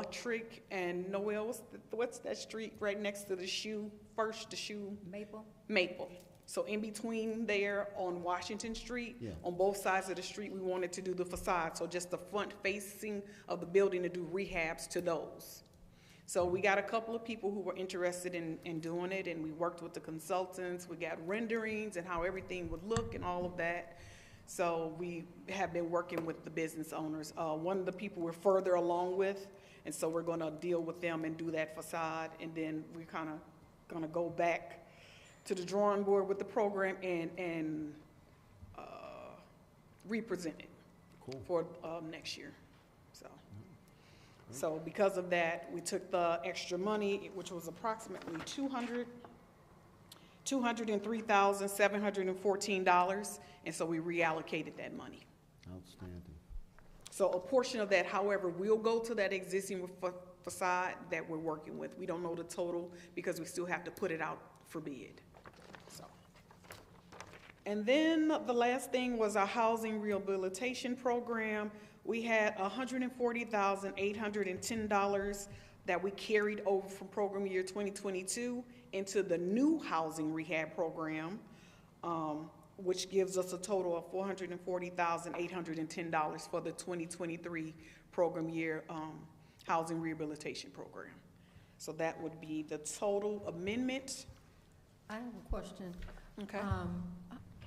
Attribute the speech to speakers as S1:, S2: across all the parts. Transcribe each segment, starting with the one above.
S1: Buttrick and Noel, what's, the- what's that street right next to the shoe, first the shoe?
S2: Maple?
S1: Maple. So in between there on Washington Street,
S3: Yeah.
S1: on both sides of the street, we wanted to do the facade, so just the front facing of the building to do rehabs to those. So we got a couple of people who were interested in, in doing it, and we worked with the consultants, we got renderings and how everything would look and all of that. So we have been working with the business owners. Uh, one of the people we're further along with, and so we're gonna deal with them and do that facade, and then we're kinda gonna go back to the drawing board with the program and, and, uh, represent it
S3: Cool.
S1: for, um, next year, so. So because of that, we took the extra money, which was approximately two hundred, two hundred and three thousand, seven hundred and fourteen dollars, and so we reallocated that money.
S3: Outstanding.
S1: So a portion of that, however, will go to that existing fa- facade that we're working with. We don't know the total because we still have to put it out for bid, so. And then the last thing was our housing rehabilitation program. We had hundred and forty thousand, eight hundred and ten dollars that we carried over from program year twenty twenty-two into the new housing rehab program, um, which gives us a total of four hundred and forty thousand, eight hundred and ten dollars for the twenty twenty-three program year, um, housing rehabilitation program. So that would be the total amendment.
S2: I have a question.
S1: Okay.
S2: Um,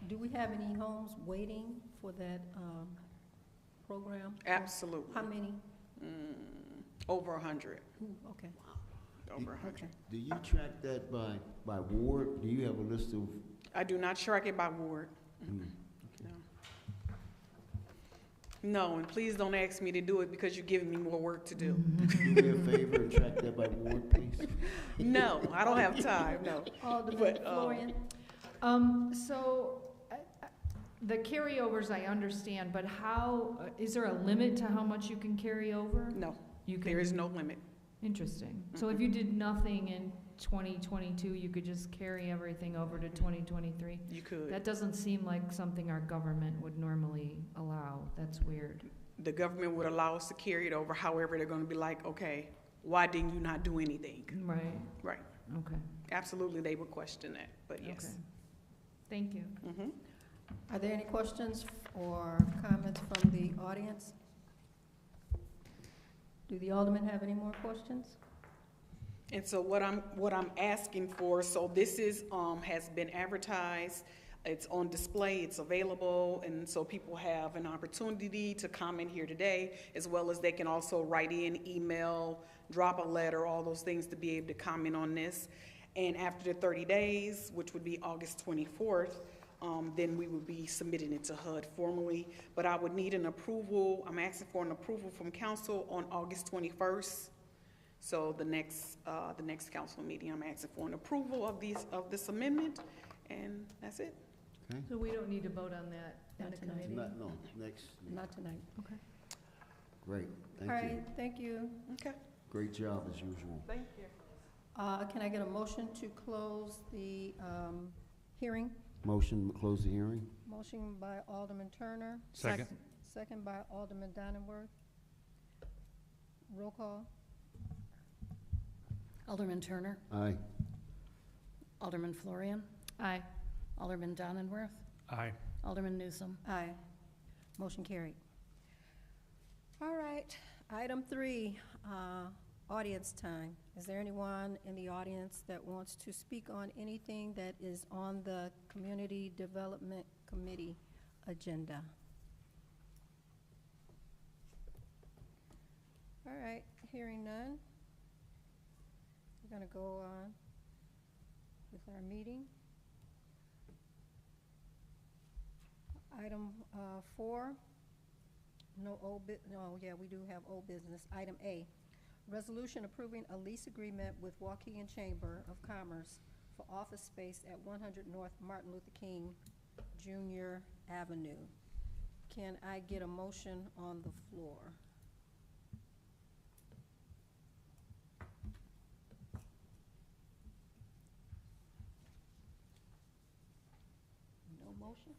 S2: do we have any homes waiting for that, um, program?
S1: Absolutely.
S2: How many?
S1: Mm, Over a hundred,
S2: Ooh, okay,
S1: over a hundred.
S2: okay.
S3: Do you track that by, by ward? Do you have a list of?
S1: I do not track it by ward,
S3: mm,
S1: no. No, and please don't ask me to do it because you're giving me more work to do.
S3: Do me a favor and track that by ward, please?
S1: No, I don't have time, no.
S2: Alderman
S1: But, um,
S2: Florian?
S4: Um, so, I- I- the carryovers I understand, but how, uh, is there a limit to how much you can carry over?
S1: No,
S4: You can-
S1: there is no limit.
S4: Interesting. So if you did nothing in twenty twenty-two, you could just carry everything over to twenty twenty-three?
S1: You could.
S4: That doesn't seem like something our government would normally allow. That's weird.
S1: The government would allow us to carry it over, however, they're gonna be like, okay, why didn't you not do anything?
S4: Right,
S1: Right,
S4: okay.
S1: absolutely, they would question that, but yes.
S4: okay. Thank you.
S1: Mhm.
S2: Are there any questions or comments from the audience? Do the aldermen have any more questions?
S1: And so what I'm, what I'm asking for, so this is, um, has been advertised, it's on display, it's available, and so people have an opportunity to comment here today, as well as they can also write in, email, drop a letter, all those things to be able to comment on this. And after the thirty days, which would be August twenty-fourth, um, then we would be submitting it to HUD formally. But I would need an approval, I'm asking for an approval from council on August twenty-first. So the next, uh, the next council meeting, I'm asking for an approval of these, of this amendment, and that's it.
S3: Okay.
S4: So we don't need to vote on that in
S2: Not
S4: the
S2: tonight.
S4: committee?
S3: Not, no, next,
S2: Not tonight.
S4: Okay.
S3: great,
S2: All
S3: thank you.
S2: right, thank you.
S1: Okay.
S3: Great job as usual.
S1: Thank you.
S2: Uh, can I get a motion to close the, um, hearing?
S3: Motion, to close the hearing?
S2: Motion by Alderman Turner,
S5: Second.
S2: second by Alderman Donenworth. Roll call.
S6: Alderman Turner,
S3: Aye.
S6: Alderman Florian,
S4: Aye.
S6: Alderman Donenworth,
S5: Aye.
S6: Alderman Newsom.
S2: Aye. Motion carried. All right, item three, uh, audience time. Is there anyone in the audience that wants to speak on anything that is on the Community Development Committee agenda? All right, hearing none. We're gonna go on with our meeting. Item uh, four, no old bu, no, yeah, we do have old business. Item A, resolution approving a lease agreement with Waukegan Chamber of Commerce for office space at one hundred North Martin Luther King Junior Avenue. Can I get a motion on the floor? No motion?